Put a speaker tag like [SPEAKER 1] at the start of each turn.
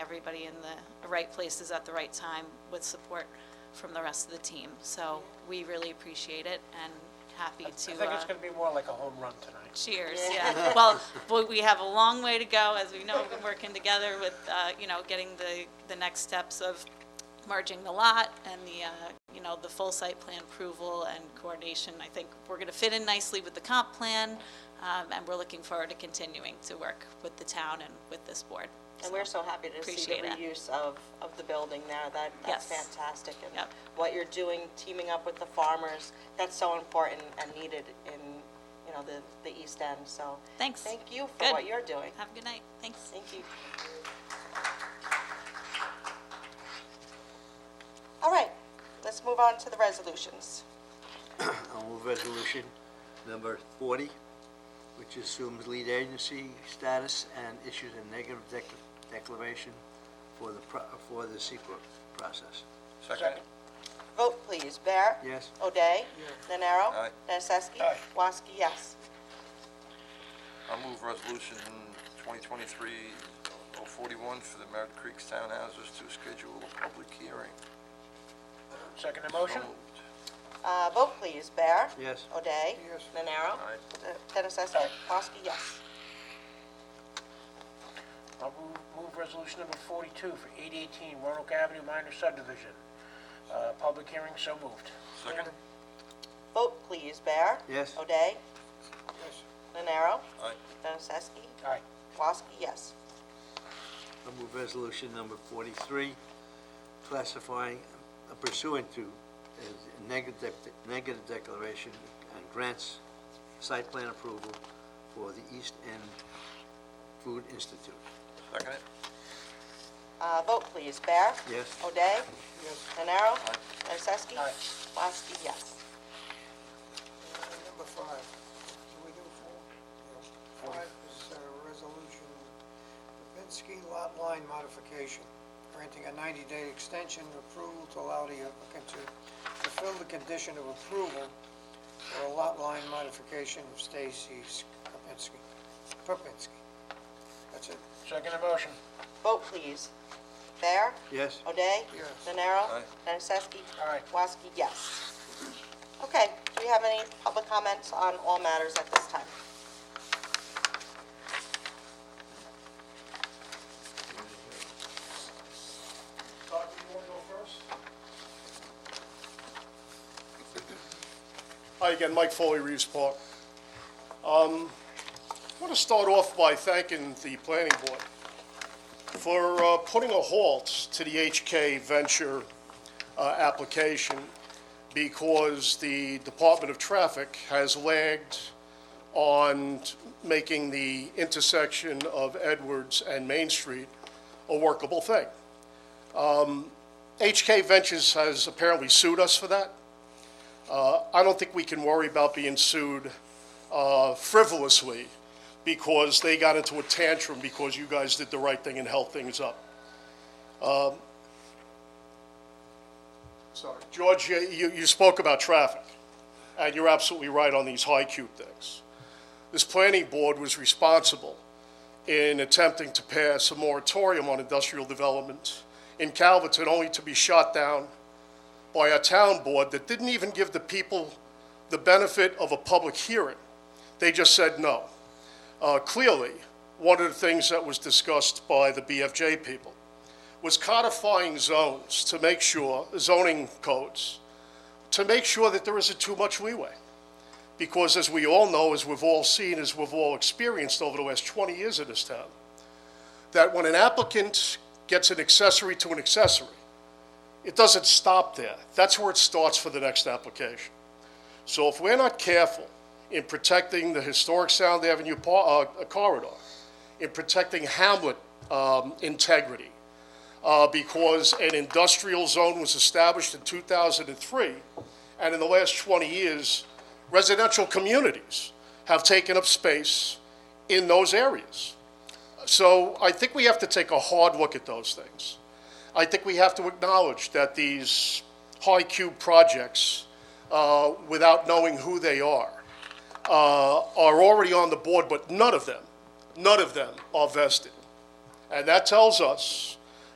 [SPEAKER 1] everybody in the right places at the right time with support from the rest of the team. So we really appreciate it and happy
[SPEAKER 2] I
[SPEAKER 1] to.
[SPEAKER 2] think it's
[SPEAKER 1] uh,
[SPEAKER 2] going to be more like a home run tonight.
[SPEAKER 1] Cheers, yeah. Well, but we have a long way to go, as we know, we've been working together with, uh, you know, getting the, the next steps of merging the lot and the, uh, you know, the full site plan approval and coordination. I think we're going to fit in nicely with the comp plan, um, and we're looking forward to continuing to work with the town and with this board.
[SPEAKER 3] And we're so happy to see the
[SPEAKER 1] appreciate it.
[SPEAKER 3] reuse of, of the building there, that, that's
[SPEAKER 1] Yes.
[SPEAKER 3] fantastic. and
[SPEAKER 1] Yep.
[SPEAKER 3] What you're doing, teaming up with the farmers, that's so important and needed in, you know, the, the East End, so.
[SPEAKER 1] Thanks.
[SPEAKER 3] Thank you for
[SPEAKER 1] Good.
[SPEAKER 3] what you're doing.
[SPEAKER 1] Have a good night. Thanks.
[SPEAKER 3] Thank you. All right, let's move on to the resolutions.
[SPEAKER 4] I'll move resolution number 40, which assumes lead agency status and issues a negative dec- declaration for the, pro- for the secret process.
[SPEAKER 2] Second.
[SPEAKER 3] Vote, please. Bear?
[SPEAKER 4] Yes.
[SPEAKER 3] O'Day? Nenaro?
[SPEAKER 5] Aye.
[SPEAKER 3] Nacesky?
[SPEAKER 2] Aye.
[SPEAKER 3] Woski, yes.
[SPEAKER 5] I'll move resolution 2023-041 for the Merritt Creek Townhouses to schedule a public hearing.
[SPEAKER 2] Second the
[SPEAKER 5] So
[SPEAKER 2] motion?
[SPEAKER 5] moved.
[SPEAKER 3] Uh, vote, please. Bear?
[SPEAKER 4] Yes.
[SPEAKER 3] O'Day?
[SPEAKER 2] Yes.
[SPEAKER 3] Nenaro?
[SPEAKER 5] Aye.
[SPEAKER 3] Dennisesky? Woski, yes.
[SPEAKER 1] Oh.
[SPEAKER 2] I'll move- move resolution number 42 for 818 Roanoke Avenue minor subdivision. Uh, Public hearing, so moved.
[SPEAKER 5] Second?
[SPEAKER 3] Vote, please. Bear?
[SPEAKER 4] Yes.
[SPEAKER 3] O'Day?
[SPEAKER 2] Yes.
[SPEAKER 3] Nenaro?
[SPEAKER 5] Aye.
[SPEAKER 3] Dennisesky?
[SPEAKER 2] Aye.
[SPEAKER 3] Woski, yes.
[SPEAKER 4] I'll move resolution number 43, classifying pursuant to a negative, dec- negative declaration and grants site plan approval for the East End Food Institute.
[SPEAKER 5] Second it?
[SPEAKER 3] Uh, vote, please. Bear?
[SPEAKER 4] Yes.
[SPEAKER 3] O'Day?
[SPEAKER 2] Yes.
[SPEAKER 3] Nenaro?
[SPEAKER 5] Aye.
[SPEAKER 3] Dennisesky?
[SPEAKER 2] Aye.
[SPEAKER 3] Woski, yes.
[SPEAKER 6] Number five, do we do four? Yeah. Five is a resolution, Babinski lot line modification, granting a 90-day extension approval to allow the applicant to fulfill the condition of approval for a lot line modification of Stacy Kapinski, Kapinski. That's it.
[SPEAKER 2] Second the motion?
[SPEAKER 3] Vote, please. Bear?
[SPEAKER 4] Yes?
[SPEAKER 3] O'Day?
[SPEAKER 6] Yes.
[SPEAKER 3] Nenaro?
[SPEAKER 5] Aye.
[SPEAKER 3] Nacesky?
[SPEAKER 2] Aye.
[SPEAKER 3] Woski, yes. Okay, do we have any public comments on all matters at this time?
[SPEAKER 2] Doctor, you want to go first?
[SPEAKER 7] Hi again, Mike Foley, Reeves Park. Um, I want to start off by thanking the planning board for uh, putting a halt to the HK Venture uh, application because the Department of Traffic has lagged on making the intersection of Edwards and Main Street a workable thing. Um, HK Ventures has apparently sued us for that. Uh, I don't think we can worry about being sued uh, frivolously because they got into a tantrum because you guys did the right thing and held things up. Um, Sorry, George, you, you you spoke about traffic, and you're absolutely right on these high cube things. This planning board was responsible in attempting to pass a moratorium on industrial development in Calverton, only to be shot down by a town board that didn't even give the people the benefit of a public hearing. They just said no. Uh, Clearly, one of the things that was discussed by the BFJ people was codifying zones to make sure, zoning codes, to make sure that there isn't too much leeway. Because as we all know, as we've all seen, as we've all experienced over the last 20 years in this town, that when an applicant gets an accessory to an accessory, it doesn't stop there. That's where it starts for the next application. So if we're not careful in protecting the historic Sound Avenue par- uh, corridor, in protecting Hamlet um, integrity, uh, because an industrial zone was established in 2003, and in the last 20 years, residential communities have taken up space in those areas. So I think we have to take a hard look at those things. I think we have to acknowledge that these high cube projects, uh, without knowing who they are, uh, are already on the board, but none of them, none of them are vested. And that tells us